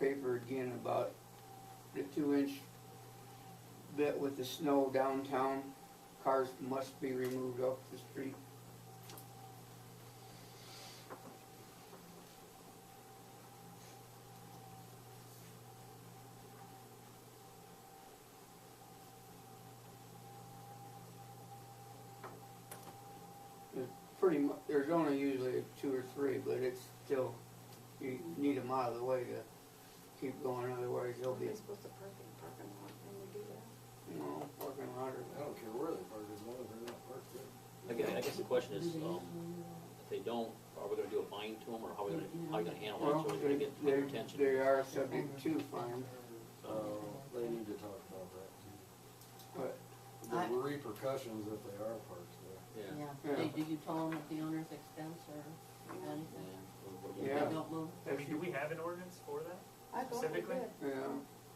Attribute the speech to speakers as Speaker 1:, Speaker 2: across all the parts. Speaker 1: paper again about the two inch bit with the snow downtown. Cars must be removed off the street. There's pretty mu, there's only usually two or three, but it's still, you need them out of the way to keep going, otherwise they'll be,
Speaker 2: Are they supposed to park in the parking lot when we do that?
Speaker 1: you know, parking lot or.
Speaker 3: I don't care where they park, as long as they're not parked there.
Speaker 4: I guess, I guess the question is, um, if they don't, are we gonna do a fine to them, or how are we gonna, how are you gonna handle
Speaker 1: Well,
Speaker 4: it, so it's gonna
Speaker 1: they,
Speaker 4: get
Speaker 1: they,
Speaker 4: attention?
Speaker 1: they are subject to fines,
Speaker 3: Uh, they need to talk about that too.
Speaker 1: but
Speaker 5: I-
Speaker 3: The repercussions if they are parked there.
Speaker 4: Yeah.
Speaker 5: Yeah,
Speaker 1: Yeah.
Speaker 5: Hey, do you tell them at the owner's expense or
Speaker 4: Yeah.
Speaker 5: anything?
Speaker 4: We're- we're-
Speaker 5: If
Speaker 1: Yeah.
Speaker 5: they don't move?
Speaker 6: I mean, do we have an ordinance for that?
Speaker 2: I thought we
Speaker 6: Specifically?
Speaker 2: did.
Speaker 1: Yeah,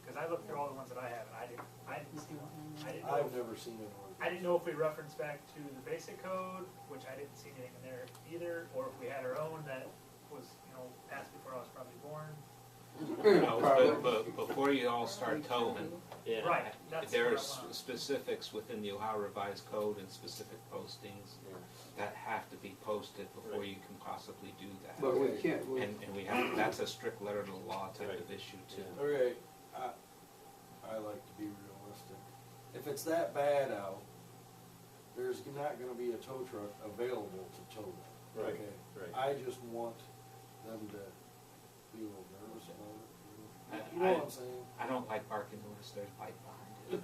Speaker 6: Cause I looked through all the ones that I have, and I didn't, I didn't see one. I didn't know,
Speaker 3: I've never seen it work.
Speaker 6: I didn't know if we referenced back to the basic code, which I didn't see anything in there either, or if we had our own that was, you know, passed before I was probably born.
Speaker 7: No, but, but before you all start towing,
Speaker 4: Yeah.
Speaker 6: Right, that's
Speaker 7: there
Speaker 6: where I'm
Speaker 7: are s-
Speaker 6: at.
Speaker 7: specifics within the Ohio Revised Code and specific postings
Speaker 4: Yeah.
Speaker 7: that have to be posted before you can possibly do that.
Speaker 1: but we can't, we,
Speaker 7: And, and we have, that's a strict letter to the law type of issue too.
Speaker 3: Okay, I, I like to be realistic. If it's that bad out, there's not gonna be a tow truck available to tow that.
Speaker 4: Right,
Speaker 3: Okay.
Speaker 4: right.
Speaker 3: I just want them to be a little nervous about it. you know?
Speaker 7: I-
Speaker 3: You
Speaker 7: I-
Speaker 3: know what I'm saying?
Speaker 7: I don't like barking unless there's light behind it.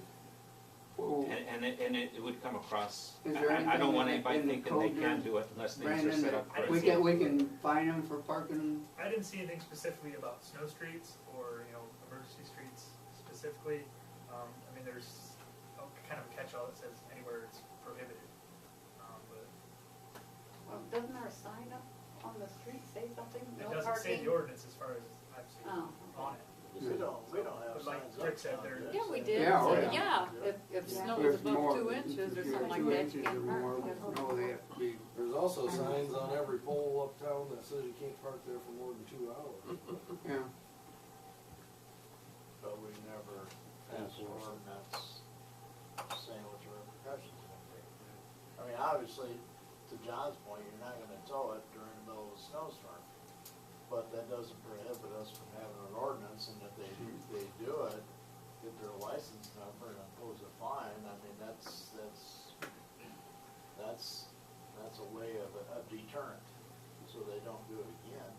Speaker 1: well,
Speaker 7: And, and it, and it it would come across,
Speaker 1: Is there
Speaker 7: I, I
Speaker 1: anything
Speaker 7: don't
Speaker 1: in
Speaker 7: want
Speaker 1: the-
Speaker 7: anybody
Speaker 1: in the
Speaker 7: thinking they
Speaker 1: code
Speaker 7: can
Speaker 1: there?
Speaker 7: do it unless things are
Speaker 1: Brandon,
Speaker 7: set up
Speaker 6: I
Speaker 1: we
Speaker 7: correctly.
Speaker 1: can, we can fine them for parking,
Speaker 6: I didn't see anything specifically about snow streets or, you know, emergency streets specifically. Um, I mean, there's a kind of a catch-all that says anywhere it's prohibited. Um, but
Speaker 2: Well, doesn't our sign up on the street say something, no parking?
Speaker 6: It doesn't say the ordinance as far as I've seen
Speaker 2: Oh,
Speaker 6: on it.
Speaker 4: Just-
Speaker 8: we don't
Speaker 6: But like Rick said, there-
Speaker 5: Yeah, we did,
Speaker 1: Yeah, oh,
Speaker 5: So,
Speaker 1: yeah.
Speaker 5: yeah, if, if
Speaker 2: Yeah.
Speaker 5: snow is
Speaker 1: there's
Speaker 5: above
Speaker 1: more.
Speaker 5: two inches or
Speaker 1: if you're
Speaker 5: something like
Speaker 1: two
Speaker 5: that, you
Speaker 1: inches or
Speaker 5: can't
Speaker 1: more,
Speaker 5: park.
Speaker 1: No, they have to be,
Speaker 3: There's also signs on every pole uptown that says you can't park there for more than two hours.
Speaker 1: yeah,
Speaker 8: But we never passed an ordinance saying what the repercussions would be. I mean, obviously, to John's point, you're not gonna tow it during the middle of a snowstorm. But that doesn't prohibit us from having an ordinance, and if they, they do it, get their license number and impose a fine, I mean, that's, that's, that's, that's a way of, a deterrent, so they don't do it again.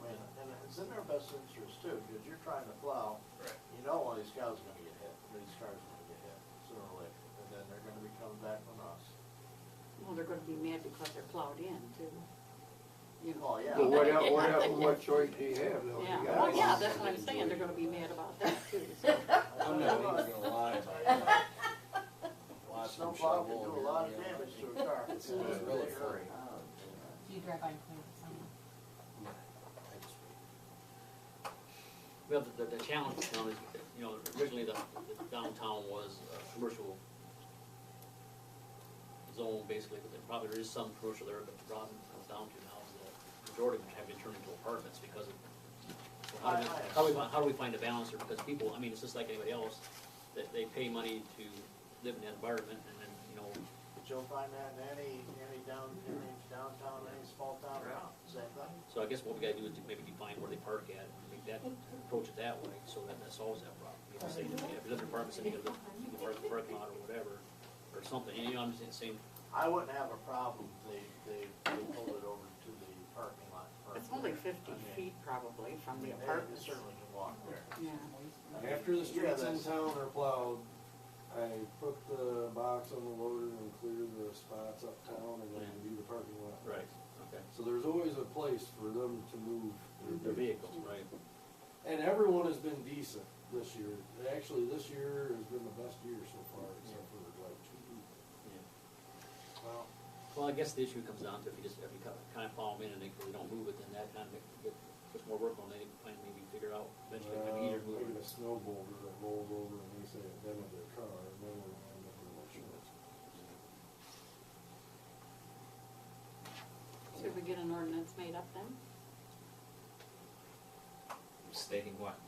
Speaker 8: I mean, and it's in their best interest too, because you're trying to plow,
Speaker 6: Right.
Speaker 8: you know one of these cows are gonna get hit, or these cars are gonna get hit sooner or later, and then they're gonna be coming back on us.
Speaker 5: Well, they're gonna be mad because they're plowed in too. You know.
Speaker 8: Oh, yeah.
Speaker 1: but what el what el what choice do you have though? You
Speaker 5: Yeah,
Speaker 1: gotta-
Speaker 5: well, Oh, yeah, that's what I'm saying, they're gonna be mad about that too, so.
Speaker 3: I'm not even gonna lie about that. Watch them
Speaker 8: Snowplow can
Speaker 3: shovel
Speaker 8: do a
Speaker 3: and
Speaker 8: lot of
Speaker 3: everything.
Speaker 8: damage to a car.
Speaker 3: It's it's really free.
Speaker 9: Do you drive by and clean up the sign?
Speaker 4: Well, the, the- the challenge now is, you know, originally the the downtown was a commercial zone, basically, but there probably there is some commercial there, but Robin comes down to now is that majority of them have been turned into apartments because of, so how do we, how do we, fi- how do we find a balance here? Because people, I mean, it's just like anybody else, that they pay money to live in that environment, and then, you know,
Speaker 8: But you'll find that in any, any down, any downtown, any small town,
Speaker 6: Yeah.
Speaker 8: same thing.
Speaker 4: so I guess what we gotta do is to maybe define where they park at, and make that, approach it that way, so that that solves that problem. You know, say, you know, if you live in apartments, and you live in the park- parking lot or whatever, or something, you know, I'm just saying,
Speaker 8: I wouldn't have a problem if they, they, they pulled it over to the parking lot. first.
Speaker 5: It's only
Speaker 8: I
Speaker 5: fifty
Speaker 8: mean,
Speaker 5: feet probably
Speaker 8: I
Speaker 5: from the
Speaker 8: mean, they
Speaker 5: apartments.
Speaker 8: certainly can walk there.
Speaker 5: Yeah,
Speaker 3: After the
Speaker 8: Yeah,
Speaker 3: streets in
Speaker 8: that's-
Speaker 3: town are plowed, I put the box on the loader and clear the spots uptown and then do the parking lot.
Speaker 4: Right, okay.
Speaker 3: So there's always a place for them to move
Speaker 4: Their vehicles, right.
Speaker 3: And everyone has been decent this year. Actually, this year has been the best year so far, except for like two people.
Speaker 8: Well,
Speaker 4: Well, I guess the issue comes down to if you just, if you kind of- kind of follow them in and they, they don't move it, then that kind of make- get- puts more work on them, and maybe figure out eventually, maybe either
Speaker 3: Well,
Speaker 4: move
Speaker 3: maybe
Speaker 4: it.
Speaker 3: a snow boulder that rolls over and they say it dented their car, and then we're gonna end up with a insurance.
Speaker 5: should we get an ordinance made up then?
Speaker 7: Stating what?